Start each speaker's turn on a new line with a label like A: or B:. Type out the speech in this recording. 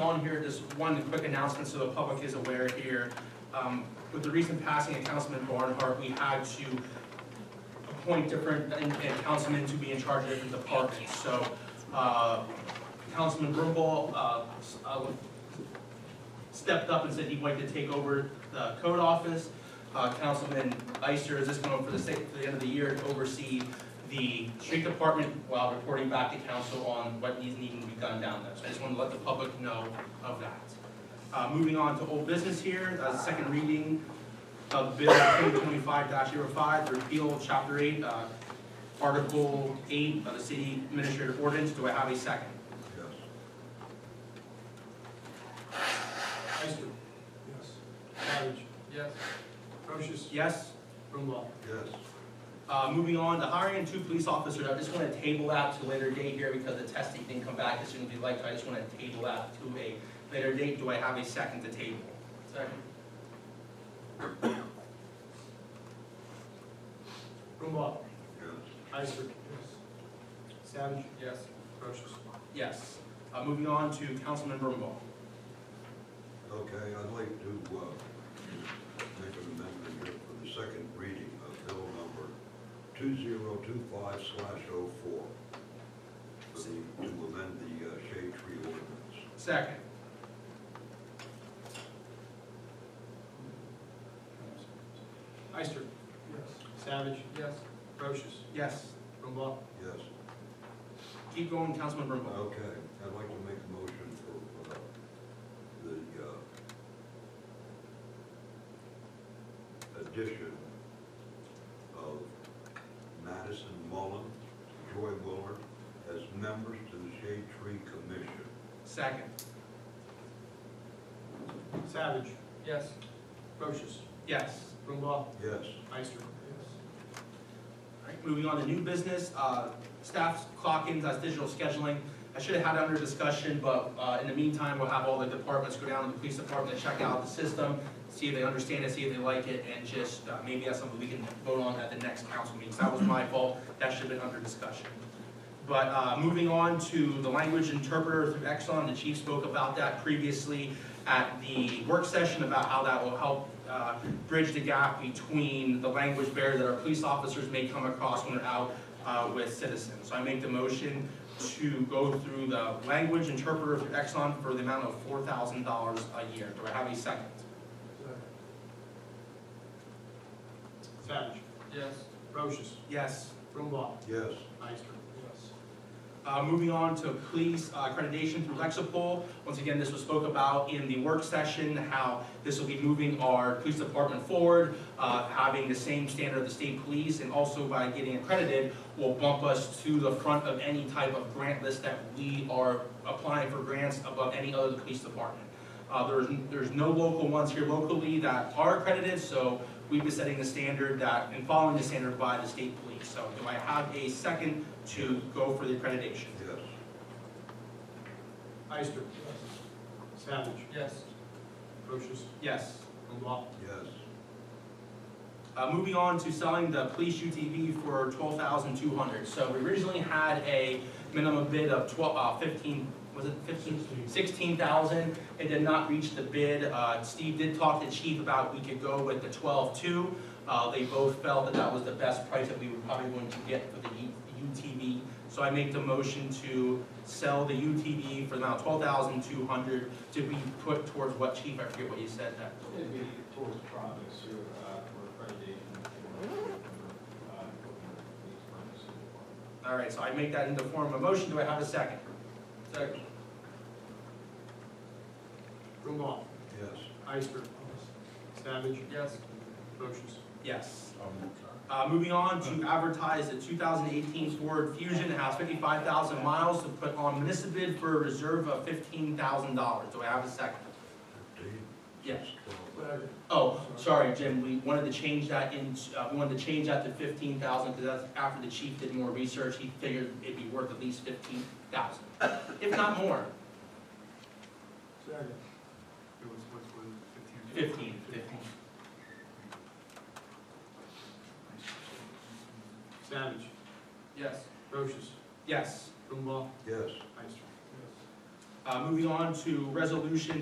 A: on here, just one quick announcement so the public is aware here. Um, With the recent passing of Councilman Barnhart, we had to appoint different, and and councilmen to be in charge of different departments. So uh, Councilman Brumball uh, s- uh, stepped up and said he'd like to take over the code office. Uh, Councilman Ister is just going for the sake, for the end of the year to oversee the street department while reporting back to council on what needs needing to be done down there. So I just wanted to let the public know of that. Uh, moving on to old business here, uh, second reading of bill twenty-five 5 repeal of chapter eight, uh, article eight of the city administrative ordinance. Do I have a second?
B: Ister. Yes. Savage.
C: Yes.
B: Procius.
A: Yes?
B: Brumbault.
C: Yes.
A: Uh, moving on, the hiring two police officers, I just wanna table that to a later date here because the testing didn't come back as soon as we'd like to, I just wanna table that to a later date, do I have a second to table?
C: Second.
B: Brumbault.
C: Yes.
B: Ister. Yes. Savage.
C: Yes.
B: Procius.
A: Yes, uh, moving on to Councilman Brumbault.
D: Okay, I'd like to, uh, make an amendment here for the second reading of bill number two zero two five slash oh four. For the, to amend the uh, shade tree ordinance.
A: Second,
B: Ister. Yes. Savage.
C: Yes.
B: Procius.
A: yes,
B: Brumbault.
D: Yes,
A: keep going, Councilman Brumbault.
D: okay, I'd like to make a motion for, uh, the, uh, uh, addition of Madison Mullen, Joy Willard, as members to the Shade Tree Commission.
A: Second,
B: Savage.
C: Yes.
B: Procius.
A: yes.
B: Brumbault.
D: Yes,
B: Ister. Yes.
A: Alright, moving on to new business, uh, staff's clock-ins, that's digital scheduling. I should have had it under discussion, but, uh, in the meantime, we'll have all the departments go down to the police department, check out the system, see if they understand it, see if they like it, and just, uh, maybe that's something we can vote on at the next council meeting. 'cause That was my fault, that should have been under discussion. But, uh, moving on to the language interpreter through Exxon, the chief spoke about that previously at the work session about how that will help, uh, bridge the gap between the language barrier that our police officers may come across when they're out uh, with citizens. So I make the motion to go through the language interpreter through Exxon for the amount of four thousand dollars a year. Do I have a second?
B: Savage.
C: Yes.
B: Procius.
A: Yes.
B: Brumbault.
D: yes,
B: Ister. Yes.
A: Uh, moving on to police uh, accreditation through Lexipol. Once again, this was spoke about in the work session, how this will be moving our police department forward, uh, having the same standard of the state police, and also by getting accredited, will bump us to the front of any type of grant list that we are applying for grants above any other police department. Uh, there's, there's no local ones here locally that are accredited, so we've been setting the standard that, and following the standard by the state police. So do I have a second to go for the accreditation?
D: yes,
B: Ister. Yes. Savage.
C: Yes.
B: Procius.
A: Yes.
B: Brumbault.
D: yes,
A: Uh, moving on to selling the police UTV for twelve thousand two hundred. So we originally had a minimum bid of twelve, uh, fifteen, was it fifteen? Sixteen thousand. It did not reach the bid. Uh, Steve did talk to Chief about we could go with the twelve-two. Uh, they both felt that that was the best price that we were probably going to get for the U- UTV. So I make the motion to sell the UTV for the amount twelve thousand two hundred to be put towards what, Chief? I forget what you said that.
E: It'd be towards projects here, uh, for accreditation for, uh, these permits.
A: All right, so I make that into form of a motion, do I have a second?
C: Second.
B: Brumbault.
D: yes.
B: Ister. Savage.
C: Yes.
B: Procius.
A: Yes. Uh, moving on to advertise the two thousand eighteen Ford Fusion, it has fifty-five thousand miles to put on municipal bid for a reserve of fifteen thousand dollars, do I have a second?
D: Fifteen,
A: Yes.
D: twelve,
B: Whatever.
A: Oh, sorry, Jim, we wanted to change that in, uh, we wanted to change that to fifteen thousand, because that's after the chief did more research, he figured it'd be worth at least fifteen thousand, if not more,
B: Second.
C: It was, was, was fifteen.
A: fifteen.
B: Savage.
C: Yes.
B: Procius.
A: Yes.
B: Brumbault.
D: yes,
B: Ister.
A: Uh, Uh, Moving on to resolution